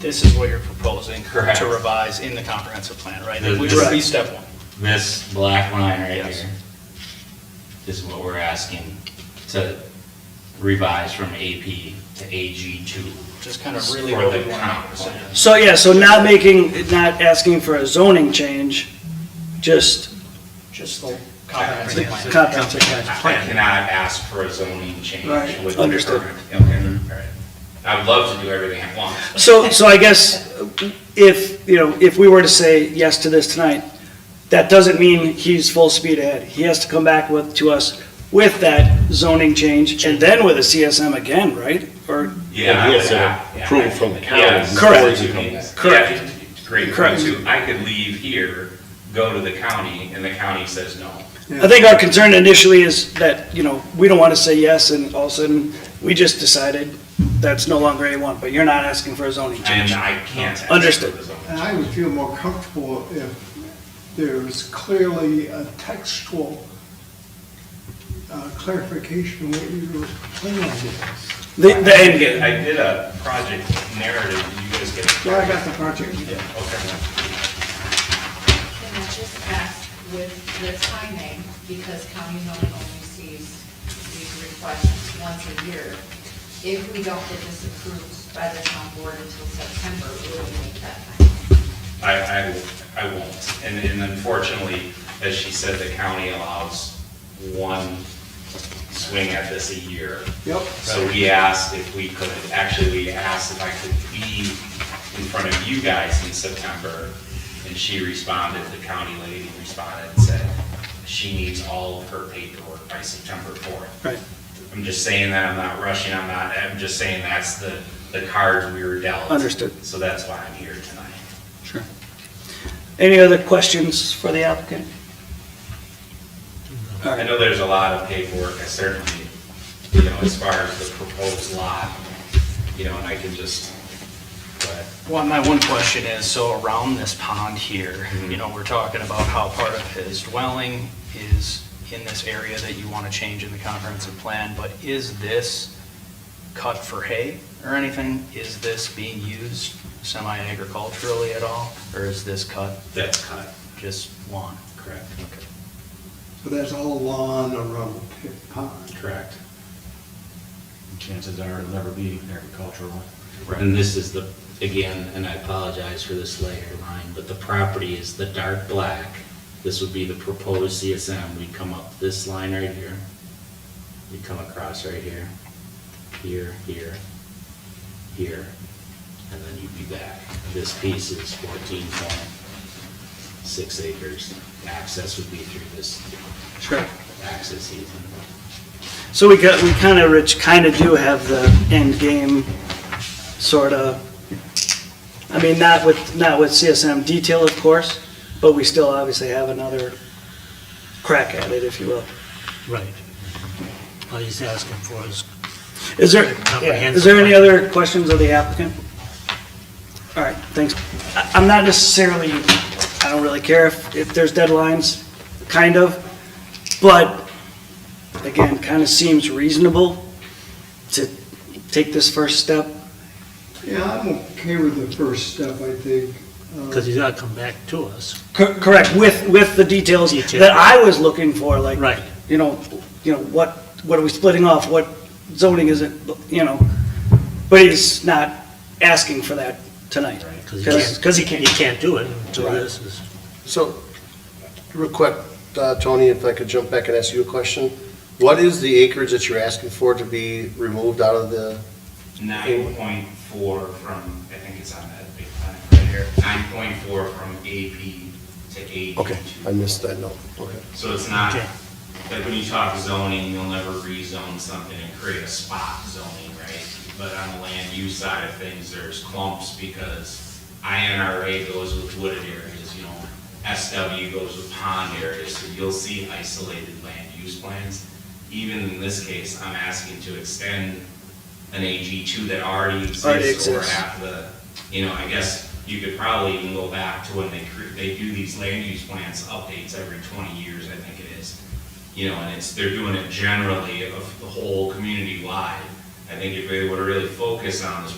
This is what you're proposing Correct. to revise in the comprehensive plan, right? This- Which would be Right. step one. This black line right Yes. here is what we're asking to revise from AP to AG two. Just kind of really, For really the want comp to plan. understand. So, yeah, so not making, not asking for a zoning change, just just the comprehensive plan. comprehensive I plan. cannot ask for a zoning change Right. with. Understood. Okay, all right. I would love to do everything at once. So, so I guess if, you know, if we were to say yes to this tonight, that doesn't mean he's full speed ahead. He has to come back with, to us with that zoning change and then with a CSM again, right? Or, Yeah, he has to yeah, yeah. approve from the county Yeah, before Correct. he can- Correct. Great, Correct. so I could leave here, go to the county, and the county says no. I think our concern initially is that, you know, we don't want to say yes and all of a sudden, we just decided that's no longer A1, but you're not asking for a zoning And change. I can't. ask Understood. for the zoning. And I would feel more comfortable if there was clearly a textual uh, clarification of what your plan is. The, the end game. I did a project narrative, did you guys get it? Yeah, I got the project. Okay. Can I just ask with the timing, because county zoning only sees these requests once a year, if we don't get this approved by the town board until September, we will make that time. I, I, I won't. And, and unfortunately, as she said, the county allows one swing at this a year. Yep. So we asked if we could, actually, we asked if I could be in front of you guys in September. And she responded, the county lady responded and said, she needs all of her paperwork by September fourth. Right. I'm just saying that, I'm not rushing, I'm not, I'm just saying that's the, the cards we were dealt. Understood. So that's why I'm here tonight. Any other questions for the applicant? I know there's a lot of paperwork, I certainly, you know, as far as the proposed lot, you know, and I can just, but Well, my one question is, so around this pond here, Mm-hmm. you know, we're talking about how part of his dwelling is in this area that you want to change in the comprehensive plan, but is this cut for hay or anything? Is this being used semi-agriculturally at all, or is this cut that's cut, just lawn? correct? So that's all lawn around the pond. Correct. chances are it'll never be agricultural. Right. And this is the, again, and I apologize for this layer line, but the property is the dark black. This would be the proposed CSM. We'd come up this line right here. We'd come across right here, here, here, here, and then you'd be back. This piece is fourteen point six acres. Access would be through this Sure. access easement. So we got, we kind of, Rich, kind of do have the end game, sort of, I mean, not with, not with CSM detail, of course, but we still obviously have another crack at it, if you will. Right. All he's asking for is, Is there, yeah, is there any other questions of the applicant? All right, thanks. I- I'm not necessarily, I don't really care if, if there's deadlines, kind of, but again, kind of seems reasonable to take this first step. Yeah, I'm okay with the first step, I think. Uh, because he's gotta come back to us. Cor- Correct, with, with the details Detail. that I was looking for, like, Right. you know, you know, what, what are we splitting off? What zoning is it, you know? But he's not asking for that tonight. Because Because, because he He can't. can't do it until this is, So, real quick, uh, Tony, if I could jump back and ask you a question. What is the acreage that you're asking for to be removed out of the, Nine point four from, I think it's on that big plan right here, nine point four from AP to AG. okay, I missed that note, okay. So it's not, Okay. like when you talk zoning, you'll never rezone something and create a spot zoning, right? But on the land use side of things, there's clumps because INRA goes with wooded areas, you know, SW goes with pond areas, so you'll see isolated land use plans. Even in this case, I'm asking to extend an AG two that already Already exists or exists. half the, you know, I guess you could probably even go back to when they, cre- they do these land use plans updates every twenty years, I think it is. You know, and it's, they're doing it generally of the whole community wide. I think if they were to really focus on this